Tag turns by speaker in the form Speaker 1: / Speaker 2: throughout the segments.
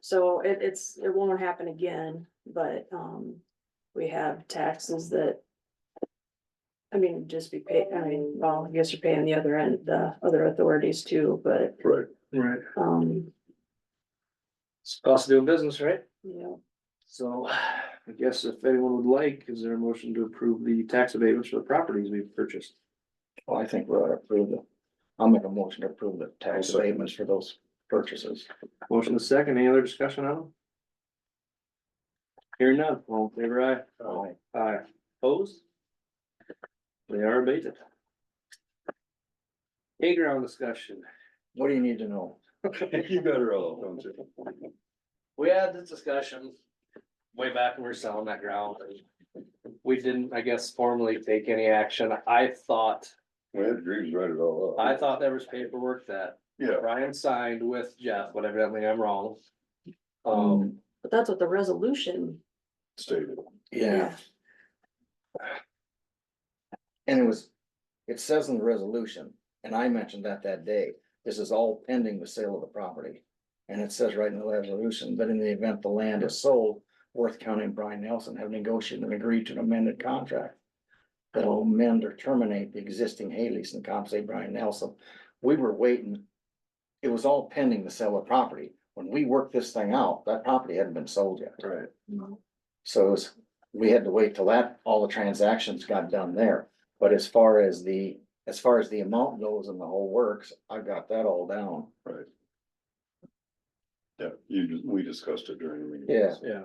Speaker 1: So it, it's, it won't happen again, but, um, we have taxes that. I mean, just be paid, I mean, well, I guess you're paying the other end, the other authorities too, but,
Speaker 2: Right.
Speaker 3: Right.
Speaker 1: um,
Speaker 3: It's cost of doing business, right?
Speaker 1: you know,
Speaker 3: So I guess if anyone would like, is there a motion to approve the tax abatements for the properties we've purchased?
Speaker 4: Well, I think we ought to approve the, I'll make a motion to approve the
Speaker 2: I'll
Speaker 4: tax
Speaker 2: second.
Speaker 4: abatements for those purchases.
Speaker 3: Motion to second, any other discussion on them? Hearing none, all in favor aye.
Speaker 4: Aye.
Speaker 3: Aye. Opposed? They are abated. Playground discussion.
Speaker 4: What do you need to know?
Speaker 2: You got her all, don't you?
Speaker 3: We had this discussion way back when we were selling that ground. We didn't, I guess, formally take any action. I thought,
Speaker 2: We had Greaves write it all up.
Speaker 3: I thought there was paperwork that
Speaker 2: Yeah,
Speaker 3: Brian signed with Jeff, but evidently I'm wrong. Um,
Speaker 1: but that's what the resolution.
Speaker 2: stated.
Speaker 4: Yeah, and it was, it says in the resolution, and I mentioned that that day, this is all pending the sale of the property. And it says right in the resolution, that in the event the land is sold, Worth County and Brian Nelson have negotiated and agreed to an amended contract. That'll amend or terminate the existing hay lease and compensate Brian Nelson. We were waiting. It was all pending the sale of property. When we worked this thing out, that property hadn't been sold yet.
Speaker 3: right,
Speaker 4: So it was, we had to wait till that, all the transactions got done there. But as far as the, as far as the amount goes and the whole works, I've got that all down.
Speaker 2: Yeah, you, we discussed it during the meeting.
Speaker 4: Yeah.
Speaker 3: yeah.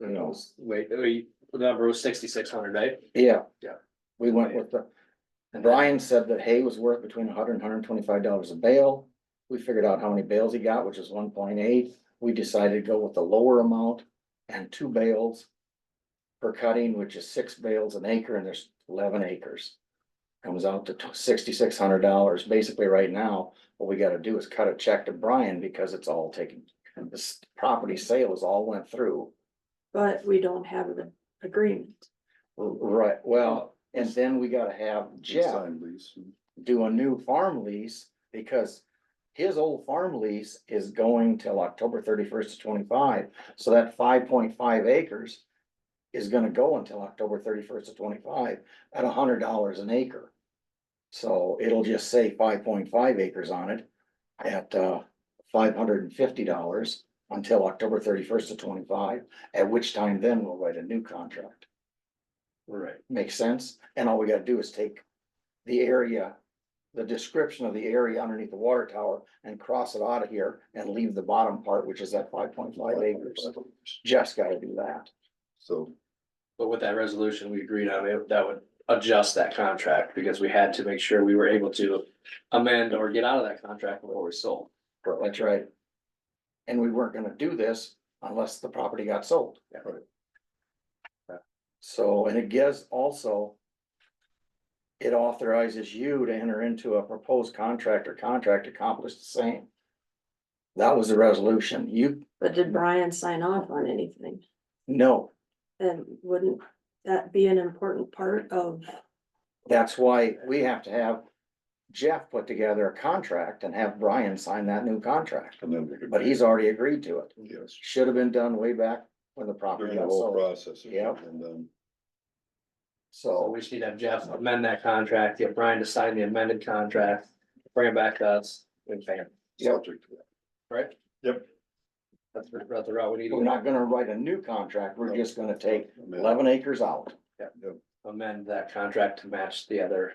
Speaker 4: You know,
Speaker 3: Wait, we, the number was sixty-six hundred, right?
Speaker 4: yeah.
Speaker 3: Yeah.
Speaker 4: We went with the, Brian said that hay was worth between $100 and hundred and twenty-five dollars a bale. We figured out how many bales he got, which is one point eight. We decided to go with the lower amount and two bales. Per cutting, which is six bales an acre and there's eleven acres. Comes out to sixty-six hundred dollars. Basically, right now, what we gotta do is cut a check to Brian because it's all taken. This property sale is all went through.
Speaker 1: But we don't have an agreement.
Speaker 4: Right, well, and then we gotta have Jeff.
Speaker 2: Signed lease.
Speaker 4: do a new farm lease because his old farm lease is going till October thirty-first to twenty-five, so that five point five acres is gonna go until October thirty-first to twenty-five at hundred dollars an acre. So it'll just say five point five acres on it at uh five hundred and fifty dollars until October thirty-first to twenty-five, at which time then we'll write a new contract.
Speaker 3: Right.
Speaker 4: Makes sense, and all we gotta do is take the area, the description of the area underneath the water tower and cross it out of here and leave the bottom part, which is that five point five acres. Just gotta do that.
Speaker 2: So,
Speaker 3: But with that resolution, we agreed on it, that would adjust that contract, because we had to make sure we were able to amend or get out of that contract before we sold.
Speaker 4: That's right. And we weren't gonna do this unless the property got sold.
Speaker 3: Yeah.
Speaker 4: So, and it gives also. It authorizes you to enter into a proposed contract or contract accomplished the same. That was the resolution. You,
Speaker 1: But did Brian sign off on anything?
Speaker 4: no,
Speaker 1: And wouldn't that be an important part of,
Speaker 4: That's why we have to have Jeff put together a contract and have Brian sign that new contract,
Speaker 2: and then we could.
Speaker 4: but he's already agreed to it.
Speaker 2: Yes.
Speaker 4: Should have been done way back when the property
Speaker 2: During the
Speaker 4: got
Speaker 2: whole
Speaker 4: sold,
Speaker 2: process.
Speaker 4: Yep.
Speaker 2: And then,
Speaker 3: So
Speaker 4: so,
Speaker 3: we just need to have Jeff amend that contract, get Brian to sign the amended contract, bring it back to us, and bam,
Speaker 4: Yep.
Speaker 2: subject to that.
Speaker 3: right?
Speaker 2: Yep.
Speaker 3: That's the, that's the route we need
Speaker 4: we're
Speaker 3: to
Speaker 4: not gonna write a new contract, we're just gonna take
Speaker 2: I mean,
Speaker 4: eleven acres out.
Speaker 3: amend that contract to match the other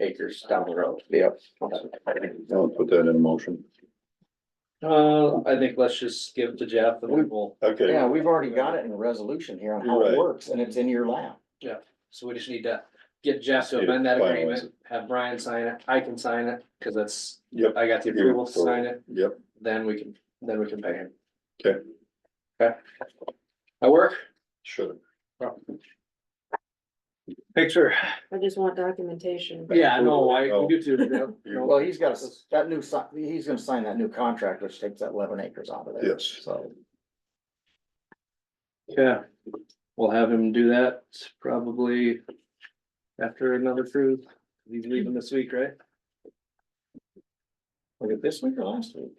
Speaker 3: acres down the road.
Speaker 4: Yep.
Speaker 2: I'll put that in motion.
Speaker 3: Uh, I think let's just give it to Jeff and we will,
Speaker 2: Okay.
Speaker 4: Yeah, we've already got it in the resolution here on how
Speaker 2: Right.
Speaker 4: it works, and it's in your lap.
Speaker 3: so we just need to get Jeff to amend that agreement, have Brian sign it, I can sign it, cause that's,
Speaker 2: Yep.
Speaker 3: I got the approval to sign it,
Speaker 2: Yep,
Speaker 3: then we can, then we can pay him.
Speaker 2: Okay.
Speaker 3: Okay. That work?
Speaker 2: should have.
Speaker 3: Picture.
Speaker 1: I just want documentation.
Speaker 3: Yeah, no, I,
Speaker 2: Oh.
Speaker 3: you too. yeah. No.
Speaker 4: Well, he's got, a- that new, si- he's gonna sign that new contract, which takes that eleven acres out of there.
Speaker 2: Yes.
Speaker 4: So,
Speaker 3: Yeah, we'll have him do that probably after another cruise. He's leaving this week, right?
Speaker 4: was it this week or last week?